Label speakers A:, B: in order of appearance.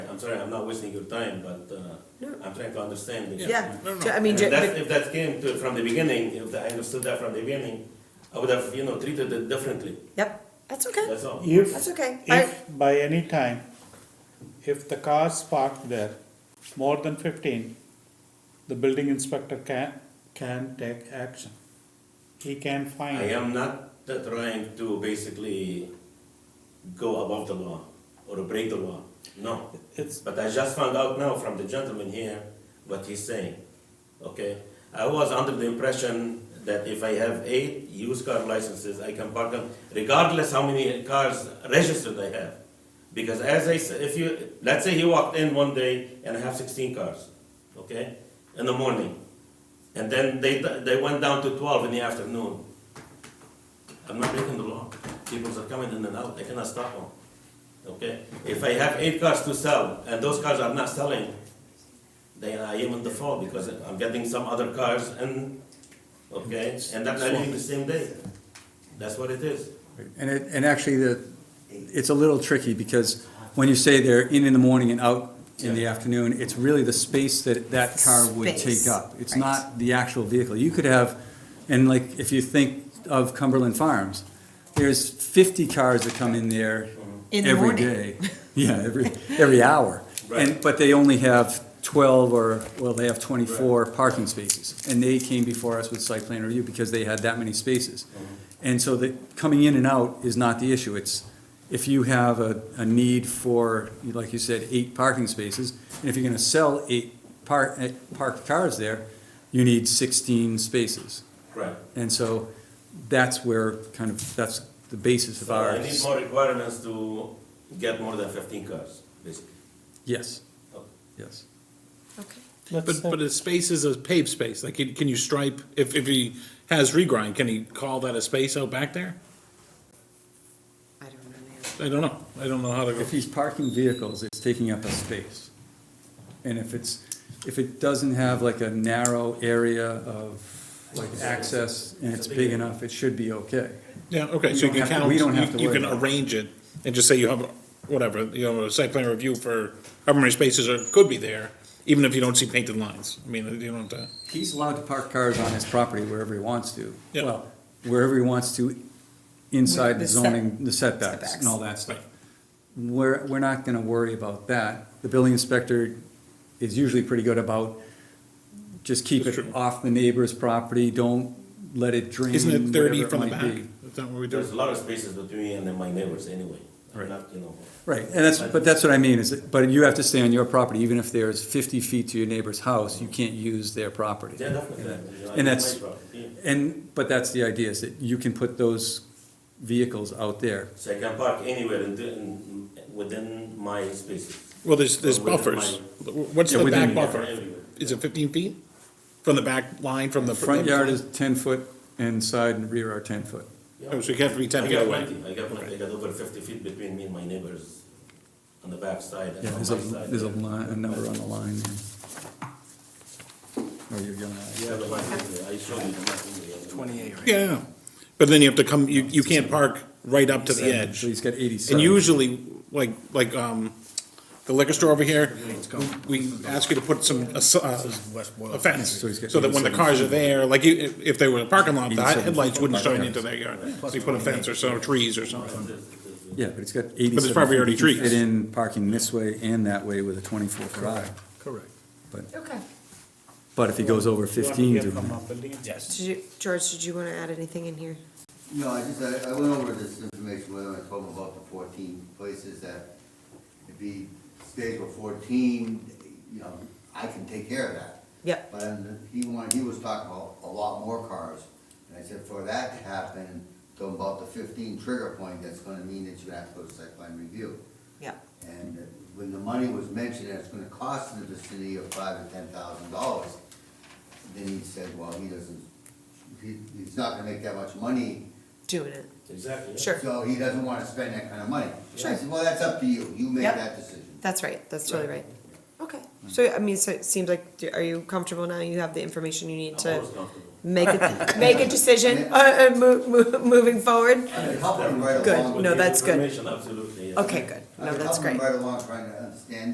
A: sorry, I'm not wasting your time, but uh,
B: No.
A: I'm trying to understand. this.
B: Yeah,
C: No, no.
B: ju- I mean,
A: If
B: ju-
A: that, if that came to, from the beginning, if I understood that from the beginning, I would have, you know, treated it differently,
B: yep, that's okay,
A: that's all.
D: If.
B: that's okay. I,
D: If by any time, if the car's parked there, more than fifteen, the building inspector can, can take action. He can fine.
A: I am not t- trying to basically go above the law or break the law, no.
D: It's,
A: But I just found out now from the gentleman here what he's saying. Okay, I was under the impression that if I have eight used car licenses, I can park them regardless how many cars registered I have. Because as I said, if you, let's say he walked in one day and I have sixteen cars, okay, in the morning. And then they, they went down to twelve in the afternoon. I'm not breaking the law. People are coming in and out, I cannot stop them. Okay, if I have eight cars to sell and those cars are not selling, then I am in default because I'm getting some other cars and, okay, and that I leave the same day. That's what it is.
E: And it, and actually, the, it's a little tricky, because when you say they're in in the morning and out in the afternoon, it's really the space that that car would
B: Space,
E: take up. It's
B: right.
E: not the actual vehicle. You could have, and like, if you think of Cumberland Farms, there's fifty cars that come in there
B: In the
E: every
B: morning.
E: day. Yeah, every, every hour. And, but they only have twelve or, well, they have twenty-four parking spaces. And they came before us with site plan review because they had that many spaces.
A: Uh-huh.
E: And so the, coming in and out is not the issue. It's, if you have a, a need for, like you said, eight parking spaces, and if you're gonna sell eight park, eh, parked cars there, you need sixteen spaces.
A: Right.
E: And so that's where kind of, that's the basis of
A: So I
E: our,
A: need more requirements to get more than fifteen cars, basically.
E: yes,
A: Okay.
E: yes.
B: okay.
D: let's
C: But,
D: say,
C: but a space is a paved space, like, can can you stripe, if, if he has regrind, can he call that a space out back there?
B: I don't know the answer.
C: I don't know, I don't know how to,
E: If he's parking vehicles, it's taking up a space. And if it's, if it doesn't have like a narrow area of like access and it's big enough, it should be okay.
C: yeah, okay,
E: we
C: so
E: don't
C: you can
E: have to-
C: count,
E: we don't have
C: you-
E: to
C: you
E: worry
C: can
E: about it.
C: arrange it, and just say you have, whatever, you know, a site plan review for how many spaces are, could be there, even if you don't see painted lines, I mean, you don't have to,
E: He's allowed to park cars on his property wherever he wants to.
C: Yeah.
E: Well, wherever he wants to, inside
B: With
E: the
B: the set-
E: zoning, the setbacks
B: setbacks.
E: and all that stuff.
C: Right.
E: We're, we're not gonna worry about that. The building inspector is usually pretty good about just keep
C: That's
E: it
C: true.
E: off the neighbor's property, don't let it drain,
C: isn't it thirty
E: Mm, whatever it
C: from the
E: might
C: back?
E: be.
C: Is that what we
A: There's a
C: do?
A: lot of spaces between me and then my neighbors anyway. I'm
E: Right.
A: not, you know.
E: Right, and that's, but that's what I mean, is, that- but you have to stay on your property, even if there's fifty feet to your neighbor's house, you can't use their property.
A: Yeah, definitely. You know, I
E: And
A: need
E: that's-
A: my property.
E: And, but that's the idea, is that you can put those vehicles out there.
A: So I can park anywhere in, the- in, within my spaces.
C: Well, there's, there's
A: Within
C: buffers,
A: my-
C: what's
E: Yeah,
C: the
E: within
C: back
E: the-
C: buffer?
A: Everywhere.
C: Is it fifteen feet? From the back line, from the?
E: Front yard is ten foot and side and rear are ten foot.
C: Oh, So you have to be ten
A: I
C: feet
A: got
C: away?
A: plenty, I got plenty, I got over fifty feet between me and my neighbors on the back side and
E: Yeah,
A: on my
E: there's a,
A: side.
E: there's a line, a number on the line there. Oh, you're going
A: Yeah, the one thing, I showed you the one thing. Twenty-eight.
C: Yeah, I know. but then you have to come, you, you can't park right up to the edge.
E: So he's got eighty-seven.
C: And usually, like, like, um, the liquor store over here, we ask you to put some, a s- uh, a fence,
E: So he's got
C: so that when the
E: 87
C: cars are there, like, you- if, if they were in a parking lot, the
E: 87
C: headlights wouldn't
E: foot by
C: shine
E: cars.
C: into their yard. So you put a fence or some trees or something.
E: Yeah, but it's got eighty-seven.
C: probably
E: feet.
C: already
E: You can
C: trees.
E: Fit in parking this way and that way with a twenty-four foot aisle.
F: Correct.
B: Okay.
E: But if he goes over
D: you want to
E: fifteen,
D: hear
E: do
D: from
E: that.
D: our building
F: Yes.
B: Did you, George, did you want to add anything in here?
G: No, I just, I, I went over this information with him, I told him about the fourteen places that if he stays with fourteen, you know, I can take care of that.
B: Yep.
G: But then he wanted, he was talking about a lot more cars, and I said, for that to happen, talking about the fifteen trigger point, that's gonna mean that you have to go to site plan review.
B: Yeah.
G: And when the money was mentioned, that it's gonna cost in the vicinity of five to ten thousand dollars, then he said, well, he doesn't, he, he's not gonna make that much money
B: Doing it.
A: Exactly. yeah.
B: Sure.
G: so he doesn't wanna spend that kind of money.
B: Sure.
G: I said, well, that's up to you, you make
B: Yep.
G: that decision.
B: That's right. That's totally right. Okay. So, I mean, so it seems like, do- are you comfortable now? You have the information you need
A: I'm
B: to
A: always comfortable.
B: make, a- make a decision, uh, uh, mo- mo- moving forward?
G: I mean, help him right
B: Good.
G: along.
A: With
B: No,
A: your
B: that's good.
A: information, Absolutely, yes.
B: Okay, good.
G: I
B: No,
G: mean,
B: that's
G: help him
B: great.
G: Right along, trying to understand